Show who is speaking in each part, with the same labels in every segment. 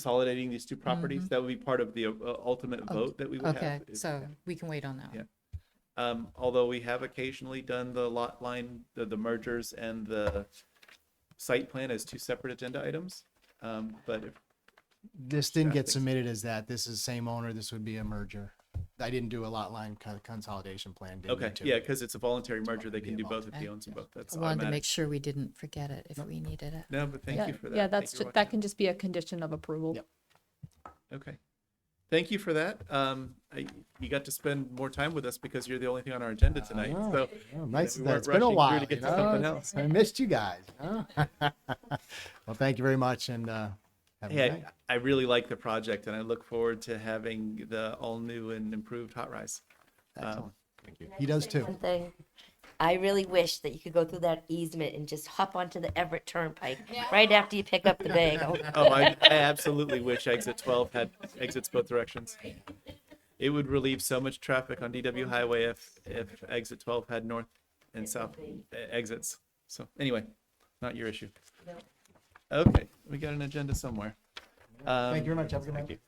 Speaker 1: consolidating these two properties. That would be part of the uh, ultimate vote that we would
Speaker 2: Mm-hmm. Okay,
Speaker 1: have. is-
Speaker 2: so we can wait on that
Speaker 1: Yeah.
Speaker 2: one.
Speaker 1: Um, although we have occasionally done the lot line, the, the mergers and the site plan as two separate agenda items. Um, but if,
Speaker 3: This didn't
Speaker 1: Yeah, I
Speaker 3: get
Speaker 1: think so.
Speaker 3: submitted as that. This is same owner. This would be a merger. I didn't do a lot line co- consolidation plan. didn't
Speaker 1: okay,
Speaker 3: need to.
Speaker 1: yeah, because it's a voluntary merger, they
Speaker 3: Be
Speaker 1: can do both if
Speaker 2: involved.
Speaker 1: they own them both. That's
Speaker 2: I wanted to make
Speaker 1: automatic.
Speaker 2: sure we didn't forget it if we needed it.
Speaker 1: No, but thank
Speaker 4: Yeah,
Speaker 1: you for that.
Speaker 4: Yeah,
Speaker 1: Thank
Speaker 4: that's,
Speaker 1: you
Speaker 4: ju-
Speaker 1: for
Speaker 4: that
Speaker 1: watching.
Speaker 4: can just be a condition of approval.
Speaker 3: Yep.
Speaker 1: Okay. Thank you for that. Um, I, you got to spend more time with us because you're the only thing on our agenda tonight.
Speaker 3: know.
Speaker 1: So
Speaker 3: Oh, nice.
Speaker 1: we
Speaker 3: that-
Speaker 1: weren't
Speaker 3: It's been a
Speaker 1: rushing through
Speaker 3: while.
Speaker 1: to get to
Speaker 3: you know?
Speaker 1: something else.
Speaker 3: I missed you guys. huh? well, thank you very much, and uh, have a good
Speaker 1: Hey,
Speaker 3: night.
Speaker 1: I, I really like the project and I look forward to having the all new and improved hot rise.
Speaker 3: Excellent. He does too.
Speaker 1: Um,
Speaker 5: One thing, I really wish that you could go through that easement and just hop onto the Everett Turnpike right after you pick up the bagel.
Speaker 1: Oh, I, I absolutely wish exit 12 had exits both directions. It would relieve so much traffic on DW Highway if, if exit 12 had north and south uh, exits. So anyway, not your issue. Okay, we got an agenda somewhere.
Speaker 3: Thank you
Speaker 1: Um,
Speaker 3: very much. Have a good night.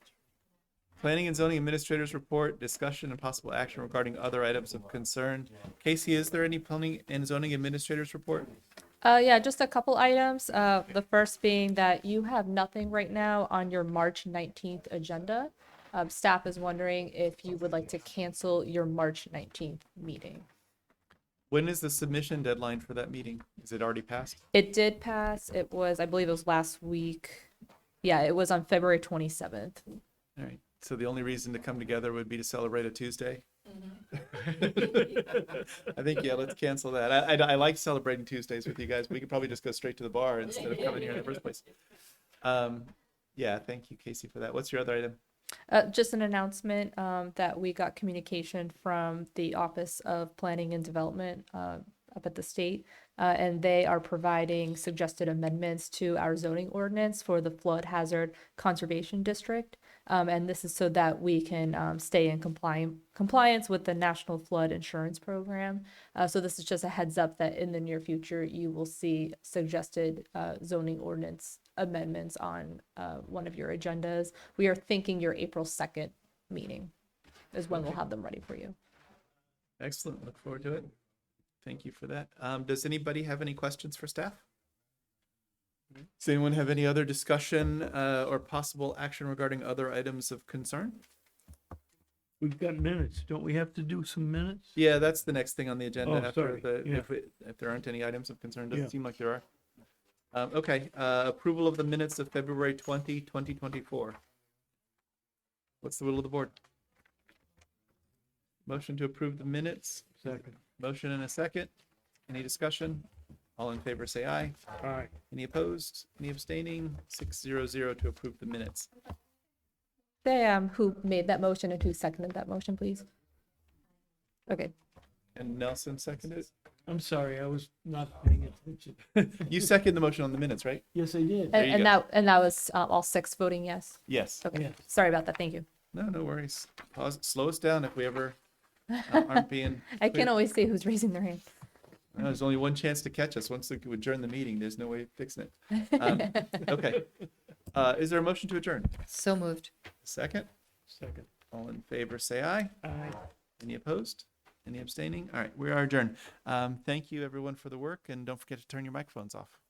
Speaker 1: Planning and zoning administrators report, discussion and possible action regarding other items of concern. Casey, is there any planning and zoning administrators report?
Speaker 4: Uh, yeah, just a couple items. Uh, the first being that you have nothing right now on your March nineteenth agenda. Um, staff is wondering if you would like to cancel your March nineteenth meeting.
Speaker 1: When is the submission deadline for that meeting? Is it already passed?
Speaker 4: It did pass. It was, I believe it was last week. Yeah, it was on February twenty-seventh.
Speaker 1: All right. So the only reason to come together would be to celebrate a Tuesday. I think yeah, let's cancel that. I, I I like celebrating Tuesdays with you guys. We could probably just go straight to the bar instead of coming here in the first place. Um, yeah, thank you, Casey, for that. What's your other item?
Speaker 4: Uh, just an announcement um, that we got communication from the Office of Planning and Development uh, up at the state, uh, and they are providing suggested amendments to our zoning ordinance for the flood hazard conservation district. Um, and this is so that we can um, stay in compliant compliance with the National Flood Insurance Program. Uh, so this is just a heads up that in the near future you will see suggested uh, zoning ordinance amendments on uh, one of your agendas. We are thinking your April 2nd meeting is when we'll have them ready for you.
Speaker 1: Excellent. Look forward to it. Thank you for that. Um, does anybody have any questions for staff? Does anyone have any other discussion uh, or possible action regarding other items of concern?
Speaker 6: We've got minutes. Don't we have to do some minutes?
Speaker 1: Yeah, that's the next thing on the agenda
Speaker 6: Oh,
Speaker 1: after
Speaker 6: sorry.
Speaker 1: the,
Speaker 6: Yeah.
Speaker 1: if, it- if there aren't any items of concern, doesn't
Speaker 6: Yeah.
Speaker 1: seem like there are. Um, okay, uh, approval of the minutes of February 20, 2024. What's the will of the board? Motion to approve the minutes,
Speaker 6: Second.
Speaker 1: motion and a second. Any discussion? All in favor, say aye.
Speaker 6: All right.
Speaker 1: Any opposed? Any abstaining? Six zero zero to approve the minutes.
Speaker 4: Say um, who made that motion and who seconded that motion, please. Okay,
Speaker 1: And Nelson seconded.
Speaker 6: I'm sorry, I was not paying attention.
Speaker 1: You second the motion on the minutes, right?
Speaker 6: Yes, I did.
Speaker 1: There
Speaker 4: and,
Speaker 1: you
Speaker 4: and
Speaker 1: go.
Speaker 4: that and that was uh, all six voting yes.
Speaker 1: Yes.
Speaker 4: Okay,
Speaker 6: Yeah.
Speaker 4: sorry about that. Thank you.
Speaker 1: No, no worries. Pause, slow us down if we ever uh, aren't being.
Speaker 4: I can't
Speaker 1: clear.
Speaker 4: always see who's raising their hand.
Speaker 1: No, There's only one chance to catch us. Once we adjourn the meeting, there's no way of fixing it. Um, Okay. Uh, Is there a motion to adjourn?
Speaker 2: So moved.
Speaker 1: Second,
Speaker 6: Second.
Speaker 1: all in favor, say aye.
Speaker 6: Aye.
Speaker 1: Any opposed? Any abstaining? All right, we are adjourned. Um, Thank you, everyone, for the work, and don't forget to turn your microphones off.